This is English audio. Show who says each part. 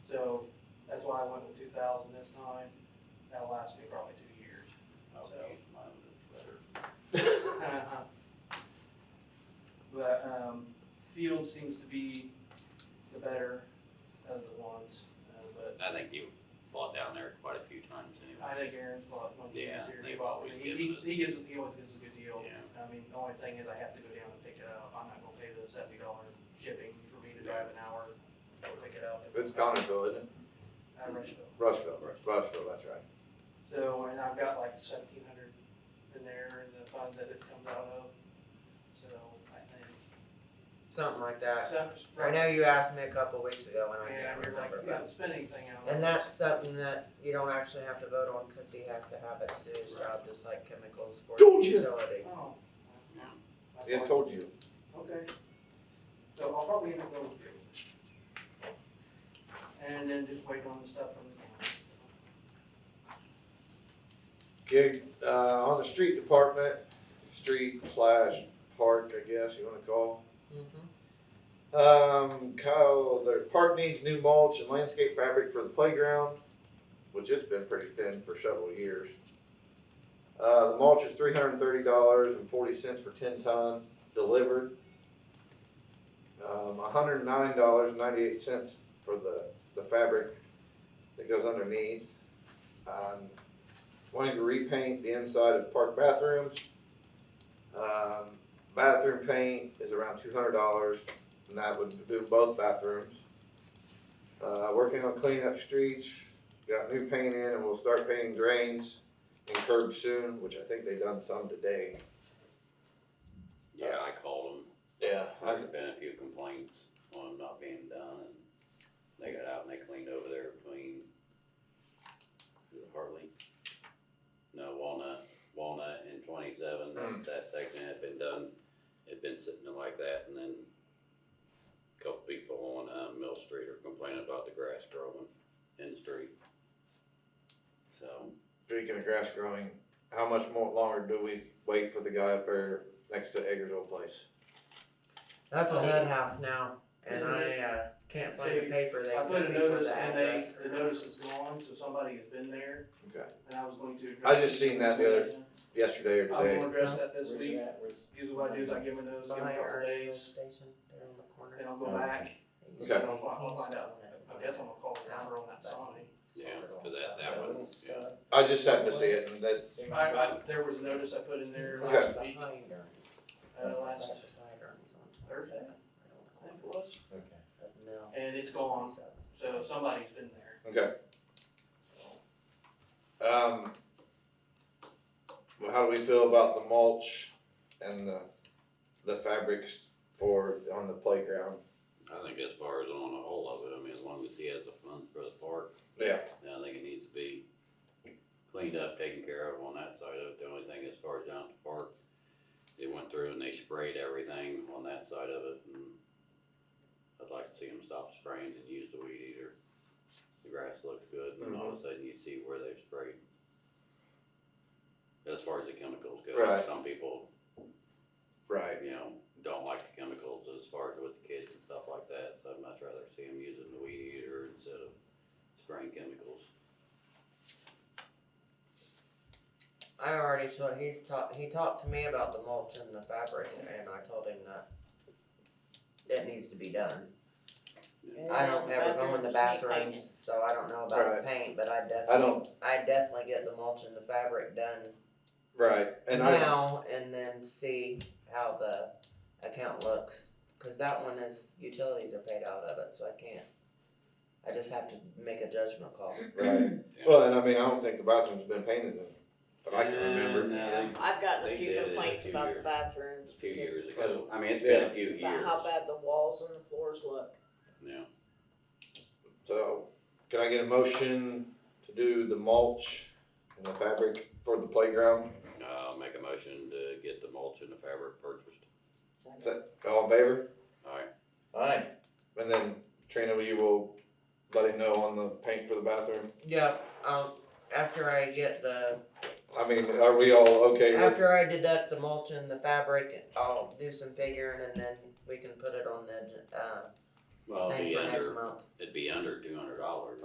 Speaker 1: I went with two thousand this time, that lasted probably two years.
Speaker 2: I'll
Speaker 1: So-
Speaker 2: use mine that's better.
Speaker 1: Uh-huh. But, um, Field seems to be the better of the ones, uh, but
Speaker 2: I think you bought down there quite a few times
Speaker 1: I
Speaker 2: anyway.
Speaker 1: think Aaron's bought one of these
Speaker 2: Yeah,
Speaker 1: here.
Speaker 2: they've
Speaker 1: He-
Speaker 2: always
Speaker 1: he-
Speaker 2: given us-
Speaker 1: He gives, he always gives us a good deal.
Speaker 2: Yeah.
Speaker 1: I mean, the only thing is I have to go down and pick it up. I'm not gonna pay the seventy dollar shipping for me to drive an hour, go pick it up.
Speaker 3: It's Connersville, isn't it?
Speaker 1: At Rushville.
Speaker 3: Rushville, Rushville, that's right.
Speaker 1: So, and I've got like seventeen hundred in there in the fund that it comes out of, so I think.
Speaker 4: Something like that.
Speaker 1: So,
Speaker 4: I
Speaker 1: right now,
Speaker 4: know you asked me a couple weeks ago and I
Speaker 1: yeah,
Speaker 4: can't
Speaker 1: we're like,
Speaker 4: remember.
Speaker 1: we
Speaker 4: but-
Speaker 1: haven't spent anything out. of
Speaker 4: And
Speaker 1: it.
Speaker 4: that's something that you don't actually have to vote on because he has to have it to do his job, just like chemicals for
Speaker 3: Told you.
Speaker 4: utilities.
Speaker 1: Oh. That's
Speaker 3: Yeah,
Speaker 1: fine.
Speaker 3: told you.
Speaker 1: Okay. So I'll probably end up going with you. And then just wait on the stuff from the county.
Speaker 3: Okay, uh, on the street department, street slash park, I guess you wanna call.
Speaker 4: Mhm.
Speaker 3: Um, Kyle, the park needs new mulch and landscape fabric for the playground, which it's been pretty thin for several years. Uh, the mulch is three hundred and thirty dollars and forty cents for ten ton delivered. Um, hundred and nine dollars and ninety-eight cents for the, the fabric that goes underneath. Um, wanting to repaint the inside of park bathrooms. Um, bathroom paint is around two hundred dollars, and that would do both bathrooms. Uh, working on cleaning up streets, got new paint in, and we'll start painting drains and curbs soon, which I think they done some today.
Speaker 2: Yeah, I called them.
Speaker 3: Yeah.
Speaker 2: There's been a few complaints on them not being done and they got out and they cleaned over there between is it Hartley. No, Walnut, Walnut and twenty-seven, that,
Speaker 3: Mm.
Speaker 2: that section had been done, had been sitting there like that and then a couple people on, uh, Mill Street are complaining about the grass growing in the street. So.
Speaker 3: Speaking of grass growing, how much more longer do we wait for the guy up there next to Eggers old place?
Speaker 4: That's a head house now, and I, uh, can't find the paper they
Speaker 1: I put
Speaker 4: sent
Speaker 1: a
Speaker 4: me for
Speaker 1: notice
Speaker 4: the
Speaker 1: and they,
Speaker 4: address.
Speaker 1: the notice is gone, so somebody has been there.
Speaker 3: Okay.
Speaker 1: And I was going to.
Speaker 3: I just seen that the other- Yesterday or
Speaker 1: I was
Speaker 3: today?
Speaker 1: going to address that this
Speaker 5: Where's it
Speaker 1: week.
Speaker 5: at? Where's-
Speaker 1: Usually what I do is I give them those, give them a
Speaker 4: By our
Speaker 1: couple days,
Speaker 4: station, there on the corner.
Speaker 1: then I'll go back.
Speaker 3: Okay.
Speaker 1: And I'll fi- I'll find out. I guess I'm gonna call the number on that sign.
Speaker 2: Yeah, 'cause that- that one, yeah.
Speaker 3: I just happened to see it and that,
Speaker 1: I, I, there was a notice I put in there
Speaker 3: Okay.
Speaker 1: last week,
Speaker 4: Behind her.
Speaker 1: uh, last,
Speaker 4: Right beside her, he's on
Speaker 1: Thursday?
Speaker 4: 27, right on the
Speaker 1: I think
Speaker 4: corner
Speaker 1: it was,
Speaker 4: of Mill.
Speaker 1: and it's gone,
Speaker 4: 27.
Speaker 1: so somebody's been there.
Speaker 3: okay. Um, well, how do we feel about the mulch and the, the fabrics for, on the playground?
Speaker 2: I think as far as on the whole of it, I mean, as long as he has the funds for the park.
Speaker 3: Yeah.
Speaker 2: then I think it needs to be cleaned up, taken care of on that side of it. The only thing as far as down at the park, they went through and they sprayed everything on that side of it and I'd like to see them stop spraying and use the weed eater. The grass looks good and all of a sudden you see where they've sprayed. As far as the chemicals go,
Speaker 3: Right.
Speaker 2: some people
Speaker 3: Right.
Speaker 2: you know, don't like the chemicals as far as with the kids and stuff like that, so I'd much rather see them using the weed eater instead of spraying chemicals.
Speaker 4: I already told, he's talked, he talked to me about the mulch and the fabric, and I told him that that needs to be done. I don't ever go in the bathrooms, so I don't know about
Speaker 3: Right.
Speaker 4: the paint, but I
Speaker 3: I
Speaker 4: definitely,
Speaker 3: don't,
Speaker 4: I definitely get the mulch and the fabric done
Speaker 3: right, and I,
Speaker 4: now and then see how the account looks. Cause that one is, utilities are paid out of it, so I can't, I just have to make a judgment call.
Speaker 3: right, well, and I mean, I don't think the bathroom's been painted in, but I can
Speaker 2: Uh,
Speaker 3: remember.
Speaker 2: Yeah,
Speaker 6: Yeah, I've gotten
Speaker 2: They
Speaker 6: a
Speaker 2: did
Speaker 6: few
Speaker 2: it a
Speaker 6: complaints
Speaker 2: few
Speaker 6: about the
Speaker 2: years-
Speaker 6: bathrooms.
Speaker 2: A few
Speaker 6: because-
Speaker 2: years ago, I mean, it's been a few
Speaker 6: About
Speaker 2: years,
Speaker 6: how bad the walls and the floors look.
Speaker 2: yeah,
Speaker 3: So, can I get a motion to do the mulch and the fabric for the playground?
Speaker 2: I'll make a motion to get the mulch and the fabric purchased,
Speaker 3: All in favor?
Speaker 2: alright,
Speaker 5: Aye.
Speaker 3: And then Trina, you will let him know on the paint for the bathroom.
Speaker 4: Yep, um, after I get the
Speaker 3: I mean, are we all okay with?
Speaker 4: After I deduct the mulch and the fabric, I'll do some figuring and then we can put it on the, uh,
Speaker 2: well, it'd
Speaker 4: thing
Speaker 2: be
Speaker 4: for next
Speaker 2: under,
Speaker 4: month.
Speaker 2: it'd be under two hundred dollars.